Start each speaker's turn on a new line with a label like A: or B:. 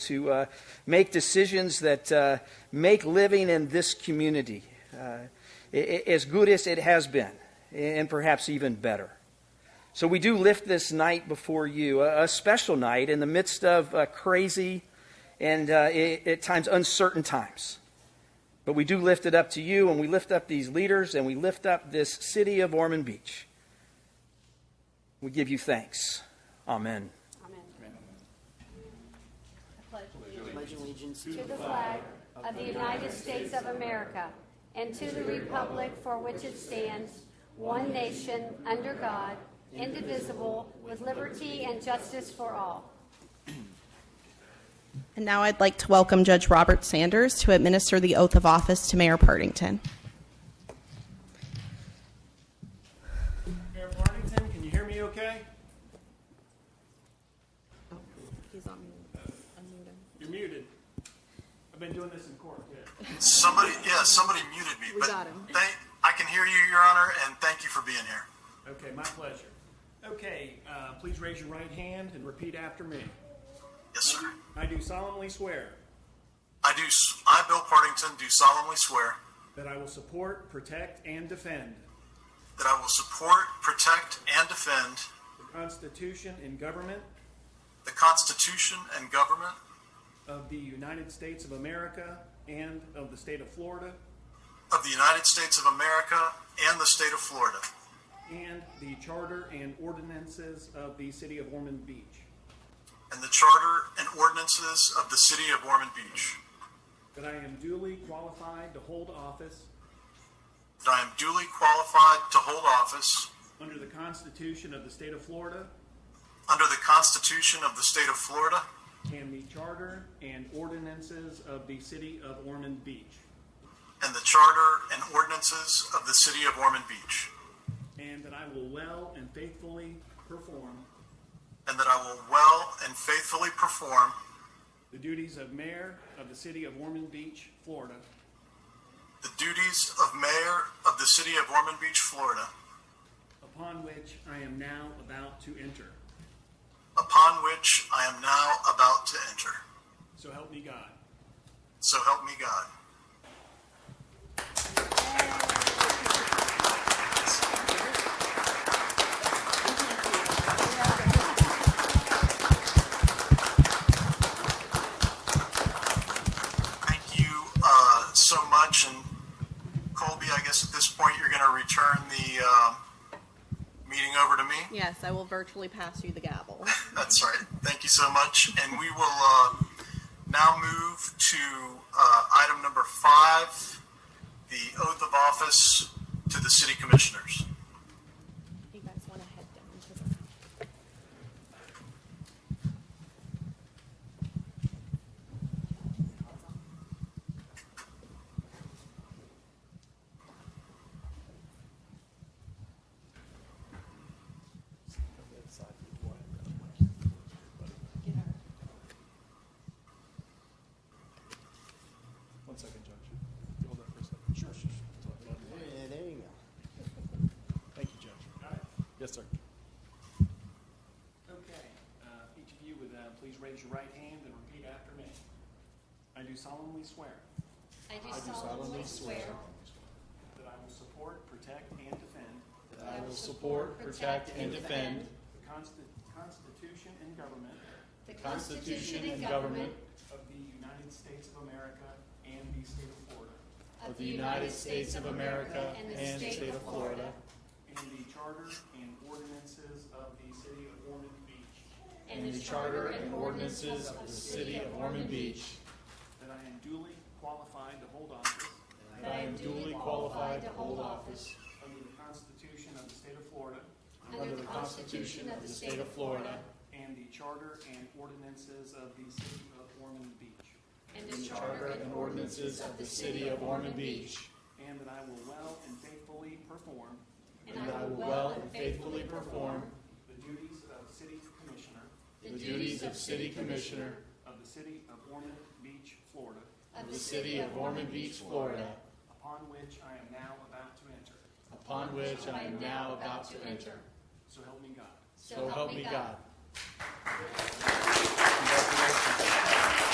A: to uh, make decisions that uh, make living in this community uh, i- i- as good as it has been, and perhaps even better. So we do lift this night before you, a, a special night in the midst of uh, crazy and uh, i at times uncertain times. But we do lift it up to you, and we lift up these leaders, and we lift up this city of Ormond Beach. We give you thanks. Amen.
B: pledge allegiance
C: To the flag of the United States of America and to the republic for which it stands, one nation, under God, indivisible, with liberty and justice for all.
D: And now I'd like to welcome Judge Robert Sanders to administer the oath of office to Mayor Partington.
E: Mayor Partington, can you hear me okay? You're muted. I've been doing this in court, yeah.
F: Somebody, yeah, somebody muted me.
G: We
F: but
G: got him.
F: Thank, I can hear you, Your Honor, and thank you for being here.
E: Okay, my pleasure. Okay, uh, please raise your right hand and repeat after me.
F: Yes, sir.
E: I do solemnly swear
F: I do. s- I, Bill Partington, do solemnly swear
E: that I will support, protect, and defend
F: that I will support, protect, and defend
E: the Constitution and government
F: the Constitution and government
E: of the United States of America and of the state of Florida
F: of the United States of America and the state of Florida,
E: and the charter and ordinances of the city of Ormond Beach,
F: and the charter and ordinances of the city of Ormond Beach.
E: that I am duly qualified to hold office
F: That I am duly qualified to hold office
E: Under the Constitution of the State of Florida
F: under the Constitution of the state of Florida
E: and the Charter and ordinances of the City of Ormond Beach,
F: and the charter and ordinances of the city of Ormond Beach.
E: and that I will well and faithfully perform
F: And that I will well and faithfully perform
E: the duties of Mayor of the City of Ormond Beach, Florida,
F: the duties of Mayor of the City of Ormond Beach, Florida,
E: upon which I am now about to enter.
F: upon which I am now about to enter.
E: So help me God.
F: So help me God. Thank you uh, so much. And Colby, I guess at this point, you're going to return the um, meeting over to me?
D: Yes, I will virtually pass you the gavel.
F: That's right. Thank you so much. And we will uh, now move to uh, item number five, the oath of office to the city commissioners.
D: You guys want to head down to the...
H: One second, Judge. You Hold that for a second. Sure, sure.
B: Yeah, there you go.
H: Thank you, Judge. Yes, sir.
E: Okay, uh, each of you would uh, please raise your right hand and repeat after me. I do solemnly swear
C: I do solemnly swear
E: that I will support, protect, and defend
C: that I will support, protect, and defend
E: the Consti- Constitution and government
C: the Constitution and government
E: of the United States of America and the state of Florida,
C: of the United States of America and the state of Florida,
E: and the charter and ordinances of the city of Ormond Beach,
C: and the charter and ordinances of the city of Ormond Beach,
E: that I am duly qualified to hold office
C: that I am duly qualified to hold office
E: under the Constitution of the state of Florida
C: under the Constitution of the state of Florida,
E: and the charter and ordinances of the city of Ormond Beach,
C: and the charter and ordinances of the city of Ormond Beach,
E: and that I will well and faithfully perform
C: and that I will well and faithfully perform
E: the duties of city commissioner
C: the duties of city commissioner
E: of the city of Ormond Beach, Florida,
C: of the city of Ormond Beach, Florida,
E: upon which I am now about to enter.
G: upon which I am now about to enter.
E: So help me God.
C: so help me God.